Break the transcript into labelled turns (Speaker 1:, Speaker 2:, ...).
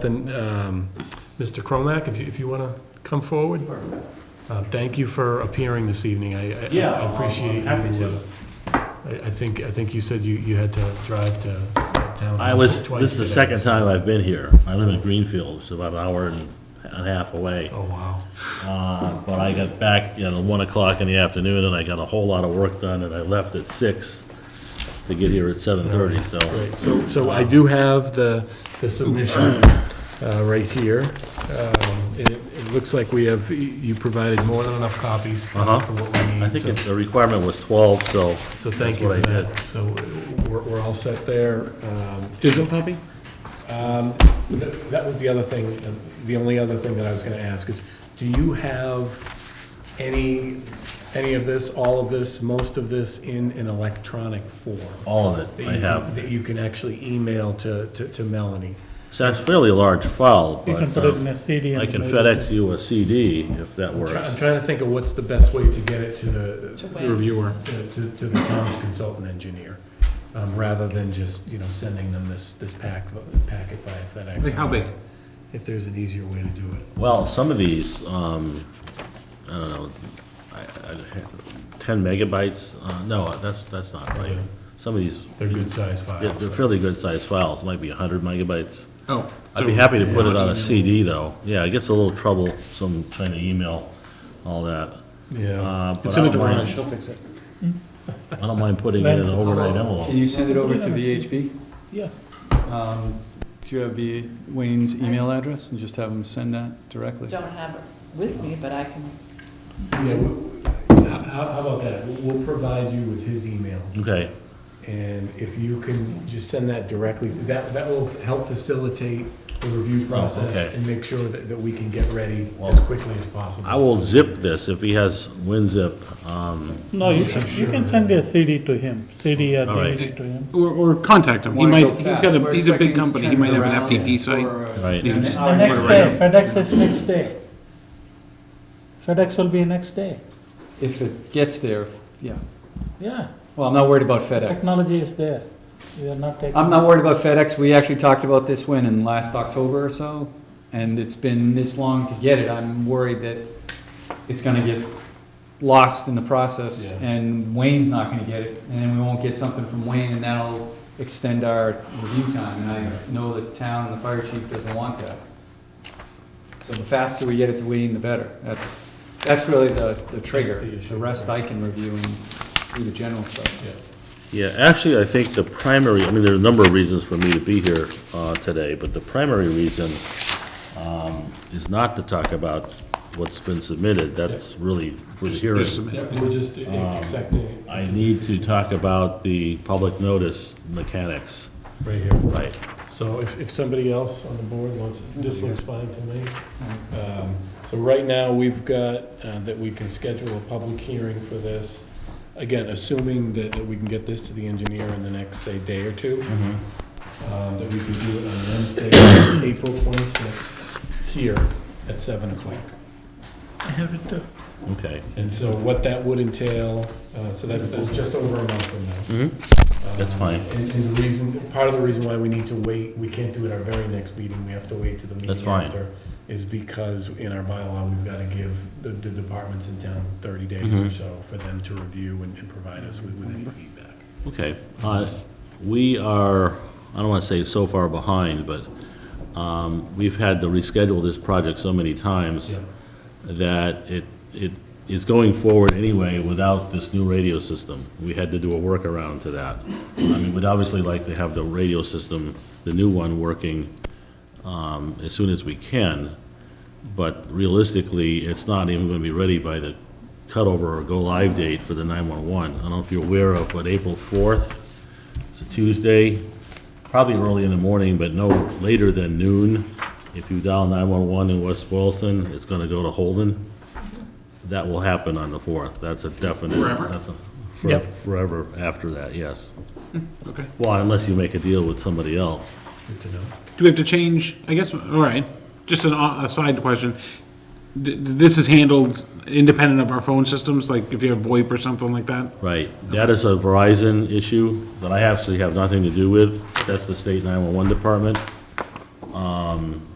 Speaker 1: Then, um, Mr. Cromack, if you, if you want to come forward? Uh, Thank you for appearing this evening. I- I
Speaker 2: Yeah,
Speaker 1: I
Speaker 2: I'm- I'm
Speaker 1: appreciate you. uh,
Speaker 2: happy to.
Speaker 1: I, I think, I think you said you, you had to drive to town
Speaker 2: I was,
Speaker 1: twice
Speaker 2: this is the
Speaker 1: today.
Speaker 2: second time I've been here. I live in Greenfield, it's about an hour and a half away.
Speaker 1: Oh, wow.
Speaker 2: Uh, But I got back, you know, one o'clock in the afternoon, and I got a whole lot of work done, and I left at six to get here at seven thirty, so.
Speaker 1: Oh, Great. So, so I do have the, the submission uh, right here. Um, and It, it looks like we have, you provided more than enough copies for
Speaker 2: Uh-huh.
Speaker 1: what we need.
Speaker 2: I think
Speaker 1: so-
Speaker 2: it's, the requirement was twelve,
Speaker 1: So
Speaker 2: so.
Speaker 1: thank
Speaker 2: that's
Speaker 1: you
Speaker 2: what
Speaker 1: for
Speaker 2: I
Speaker 1: that.
Speaker 2: did.
Speaker 1: So we're, we're all set there. Um, Digital copy? Um, th- That was the other thing, uh, the only other thing that I was gonna ask is, do you have any, any of this, all of this, most of this in an electronic form?
Speaker 2: All of
Speaker 1: that
Speaker 2: it,
Speaker 1: you
Speaker 2: I
Speaker 1: can-
Speaker 2: have.
Speaker 1: That you can actually email to, to to Melanie?
Speaker 2: It's a fairly large file,
Speaker 3: You
Speaker 2: but
Speaker 3: can put it in
Speaker 2: uh,
Speaker 3: a CD. and
Speaker 2: I can
Speaker 3: maybe-
Speaker 2: FedEx you a CD if that
Speaker 1: I'm try- I'm
Speaker 2: works.
Speaker 1: trying to think of what's the best way to get it to the.
Speaker 4: To
Speaker 1: the
Speaker 4: Wayne.
Speaker 1: Reviewer. To, to- to the town's consultant engineer, um, rather than just, you know, sending them this, this pack, packet via FedEx.
Speaker 5: Like how big?
Speaker 1: If there's an easier way to do it.
Speaker 2: Well, some of these, um, I don't know, I, I, ten megabytes, uh, no, that's, that's not right.
Speaker 1: Yeah.
Speaker 2: Some of these.
Speaker 1: They're good sized
Speaker 2: Yeah,
Speaker 1: files.
Speaker 2: they're fairly good-sized files, might be hundred megabytes.
Speaker 5: Oh.
Speaker 2: I'd be happy to put it on a CD, though. Yeah, it gets a little trouble, some trying to email, all that.
Speaker 1: Yeah.
Speaker 2: Uh,
Speaker 1: It's
Speaker 2: but
Speaker 1: in
Speaker 2: I
Speaker 1: a
Speaker 2: don't
Speaker 1: garage,
Speaker 2: mind,
Speaker 1: she'll fix it.
Speaker 2: I don't mind putting it in an overnight
Speaker 6: Um, Can
Speaker 2: envelope.
Speaker 6: you send it over to VHB?
Speaker 3: Yeah,
Speaker 6: Um, Do you have the- Wayne's email address and just have him send that directly?
Speaker 4: don't have it with me, but I can,
Speaker 1: Yeah, w- w- how, how how about that? We'll provide you with his email.
Speaker 2: Okay,
Speaker 1: And if you can just send that directly, that, that will help facilitate the review process
Speaker 2: Oh, okay.
Speaker 1: and make sure that, that we can get ready
Speaker 2: Well,
Speaker 1: as quickly as possible.
Speaker 2: I will zip this if he has WinZip, um,
Speaker 3: no, you can, you can send a CD to him, CD or
Speaker 2: All right.
Speaker 3: DVD to him.
Speaker 5: Or, or contact him. He
Speaker 6: Wanna go
Speaker 5: might, he's got
Speaker 6: fast.
Speaker 5: a,
Speaker 6: We're
Speaker 5: he's a big
Speaker 6: expecting
Speaker 5: company. He
Speaker 6: to
Speaker 5: might
Speaker 6: turn
Speaker 5: have
Speaker 6: it
Speaker 5: an
Speaker 6: around
Speaker 5: FTP site.
Speaker 6: for, uh,
Speaker 2: Right.
Speaker 6: an
Speaker 5: The
Speaker 3: The
Speaker 6: hour.
Speaker 3: next
Speaker 5: Right.
Speaker 3: day, FedEx is next day. FedEx will be next day,
Speaker 6: If it gets there, yeah.
Speaker 3: yeah,
Speaker 6: Well, I'm not worried about FedEx.
Speaker 3: technology is there, we are not taking.
Speaker 6: I'm not worried about FedEx. We actually talked about this when, in last October or so, and it's been this long to get it. I'm worried that it's gonna get lost in the process,
Speaker 1: Yeah.
Speaker 6: and Wayne's not gonna get it, and then we won't get something from Wayne, and that'll extend our review time, and I know the town and the fire chief doesn't want that. So the faster we get it to Wayne, the better. That's, that's really the, the trigger.
Speaker 1: That's the issue,
Speaker 6: The rest
Speaker 1: right.
Speaker 6: I can review and do the general stuff.
Speaker 1: Yeah.
Speaker 2: Yeah, actually, I think the primary, I mean, there's a number of reasons for me to be here uh, today, but the primary reason um, is not to talk about what's been submitted, that's really for the hearing.
Speaker 5: Just submit.
Speaker 1: Yeah, we're just
Speaker 2: Um,
Speaker 1: accepting it
Speaker 2: I need to talk about the public notice mechanics.
Speaker 1: right here.
Speaker 2: Right.
Speaker 1: So if, if somebody else on the board wants, this looks fine to me. Um, So right now, we've got uh, that we can schedule a public hearing for this. Again, assuming that that we can get this to the engineer in the next, say, day or two, um, that we can do it on Wednesday, April 26th, here at 7 o'clock.
Speaker 3: I have it uh, too.
Speaker 2: Okay.
Speaker 1: And so what that would entail, uh, so that's, that's just over a month from now.
Speaker 2: Mm-hmm. That's fine.
Speaker 1: Um, And, and the reason, part of the reason why we need to wait, we can't do it our very next meeting, we have to wait to the meeting
Speaker 2: That's fine.
Speaker 1: after, is because in our bylaw, we've gotta give the, the departments in town thirty days or
Speaker 2: Mhm.
Speaker 1: so for them to review and, and provide us with, with any feedback.
Speaker 2: Okay, uh, we are, I don't want to say so far behind, but um, we've had to reschedule this project so many times
Speaker 1: Yeah.
Speaker 2: that it, it is going forward anyway without this new radio system. We had to do a workaround to that. I mean, we'd obviously like to have the radio system, the new one, working um, as soon as we can, but realistically, it's not even going to be ready by the cutover or go-live date for the 911. I don't know if you're aware of, but April 4th, it's a Tuesday, probably early in the morning, but no later than noon. If you dial 911 in West Boylston, it's going to go to Holden. That will happen on the 4th. That's a definite.
Speaker 5: Forever?
Speaker 2: that's a- for-
Speaker 3: Yep.
Speaker 2: Forever after that, yes.
Speaker 5: Hmm, Okay.
Speaker 2: Well, unless you make a deal with somebody else.
Speaker 1: Good to know.
Speaker 5: Do we have to change, I guess, all right, just an, o- a side question. D- d- This is handled independent of our phone systems, like if you have VoIP or something like that?
Speaker 2: Right, that is a Verizon issue that I actually have nothing to do with, that's the state 911 department. Um,